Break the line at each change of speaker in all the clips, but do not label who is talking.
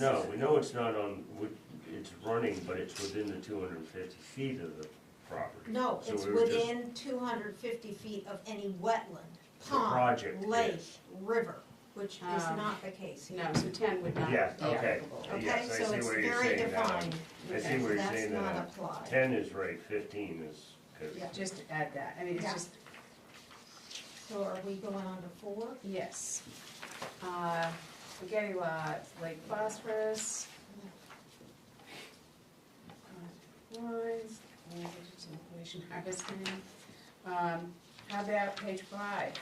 No, we know it's not on, we- it's running, but it's within the two hundred and fifty feet of the property.
No,
So
it's
we were just-
within two hundred fifty feet of any wetland,
The project
pond, lake,
is.
river, which is
Um,
not the case here.
No, so ten would not be
Yeah, okay.
applicable.
Okay,
Yes, I
so
see
it's
where you're
very
saying that.
defined,
I see where you're
that's
saying
not
that,
applied.
ten is right, fifteen is, cause,
Yeah.
Just to add that, I mean, it's
Yeah.
just,
So are we going on to four?
yes. Uh, Spaghetti lots, Lake Phosphorus. Uh, Lines, languages and pollution harvesting. Um, How about page five?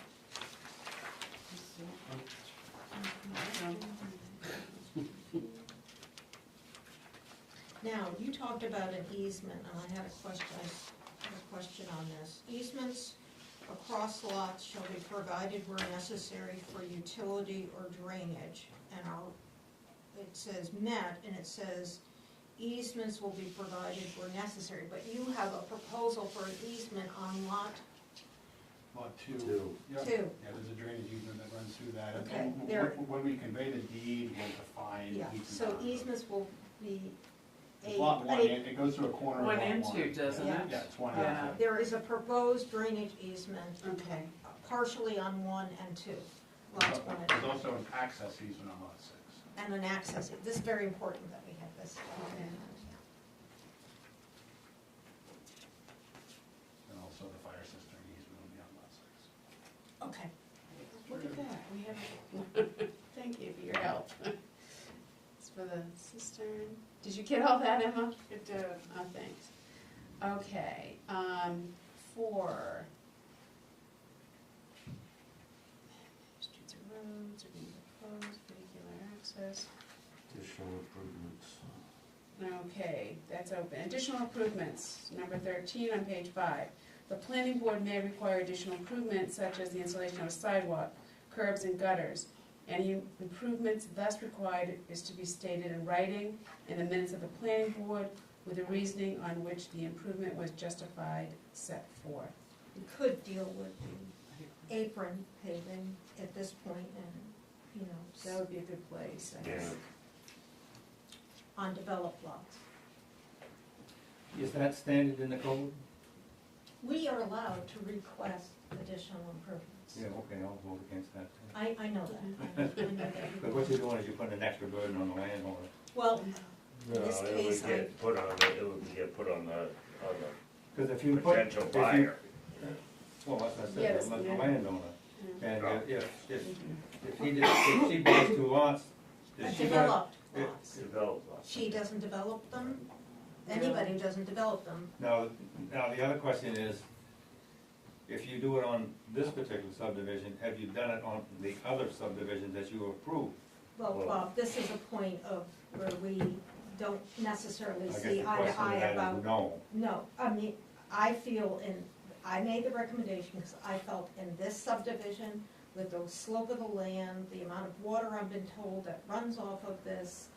Now, you talked about an easement, and I had a question, I had a question on this. Easements across lots shall be provided where necessary for utility or drainage, and I'll, it says met, and it says easements will be provided where necessary, but you have a proposal for an easement on lot
Lot two.
Two.
Yep.
Two.
Yeah, there's a drainage easement that runs through that. And
Okay,
then
there-
wh- wh- When we convey the deed, we'll define.
Yeah,
easement
so
boundaries.
easements will be a,
It's lot one,
a-
and it goes through a corner of
One
lot one.
and two, doesn't
Yeah.
it?
Yeah, it's one
Yeah.
and two.
there is a proposed drainage easement
Okay,
partially on one and two, lots one and
There's
two,
also an access easement on lot six.
and an access, this is very important that we have this.
Okay.
And also the fire system easement will be on lot six.
Okay,
look at that, we have, thank you for your help. It's for the cistern. Did you get all that, Emma? Good job. Oh, thanks. Okay, um, four. Streets or roads are being proposed, vehicular access.
additional improvements.
Okay, that's open. Additional improvements, number thirteen on page five. The planning board may require additional improvements such as the installation of a sidewalk, curbs and gutters. Any improvements thus required is to be stated in writing in the minutes of the planning board with the reasoning on which the improvement was justified set forth.
we could deal with the apron paving at this point and, you
That
know,
would be a good place, I
Yeah,
guess.
on developed lots.
Is that standard in the code?
We are allowed to request additional improvements.
okay, I'll vote against that. too.
I, I know that. I know- I know that.
But what you're doing is you're putting an extra burden on the landowner.
Well,
No,
this
it
case,
would
I-
get put on, the- it would get put on the, on
Because if
the
you put.
potential
if you-
buyer.
Well, that's what I said,
Yes,
the the
yeah.
landowner.
Yeah.
And if, if, if- if he did, if she buys two lots, does she buy?
developed
it-
lots.
Develop lots.
She doesn't develop them, anybody who doesn't develop them.
Now, now the other question is, if you do it on this particular subdivision, have you done it on the other subdivision that you approved?
Well,
Well-
Bob, this is a point of where we don't necessarily
I guess
see
the
eye to
question
eye
of that is
about,
No.
no, I mean, I feel in, I made the recommendation because I felt in this subdivision, with the slope of the land, the amount of water I've been told that runs off of this,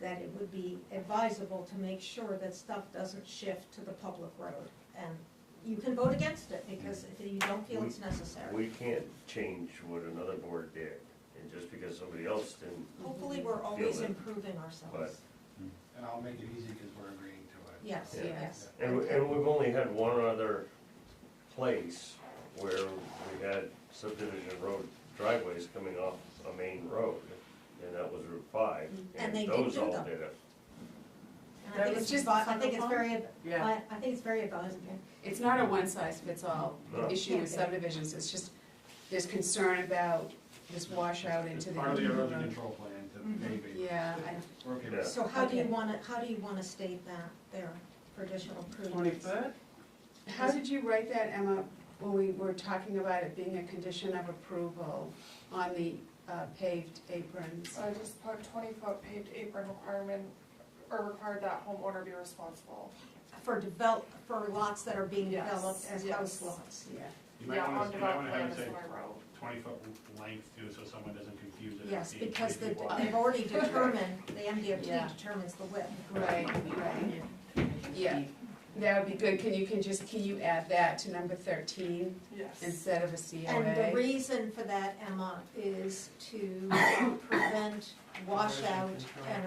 that it would be advisable to make sure that stuff doesn't shift to the public road. And you can vote against it because if you don't feel it's necessary.
We can't change what another board did, and just because somebody else didn't,
Hopefully, we're always
it,
improving ourselves.
And I'll make it easy because we're agreeing to it.
Yes,
Yeah.
Yes.
yes.
and, we- and we've only had one other place where we had subdivision road driveways coming off a main road, and that was Route Five.
And they did
Those
do
all
them.
did it.
And I think
That
it's
was just
advi- I think it's
Thunderball?
very,
Yeah,
I, I think it's very advisable.
It's not a one-size-fits-all
No.
issue with subdivisions, it's just, there's concern about this washout
It's
into the.
part of the erosion control plan
Mhm.
to pave it.
Yeah, I,
We're okay
Yeah.
with
So how do you
Okay.
wanna, how do you wanna state that there for additional
twenty
improvements?
foot?
How did you write that, Emma, when we were talking about it being a condition of approval on the uh, paved aprons?
So I just put twenty foot paved apron requirement, or required that homeowner be responsible.
For develop, for lots that are being
Yes,
developed as house
yes.
lots.
Yeah,
You might
Yeah,
wanna, you
on
might
developed
wanna have
land
it
is
say
my road.
twenty foot length too, so someone doesn't confuse it. with
Yes,
being
because
completely
they've,
wide.
they've already determined, the
Yeah.
MDOT determines the width.
right, right, yeah, That would be good, can you, can just, can you add that to number thirteen
Yes.
instead of a
And the
COA?
reason for that, Emma, is to prevent washout and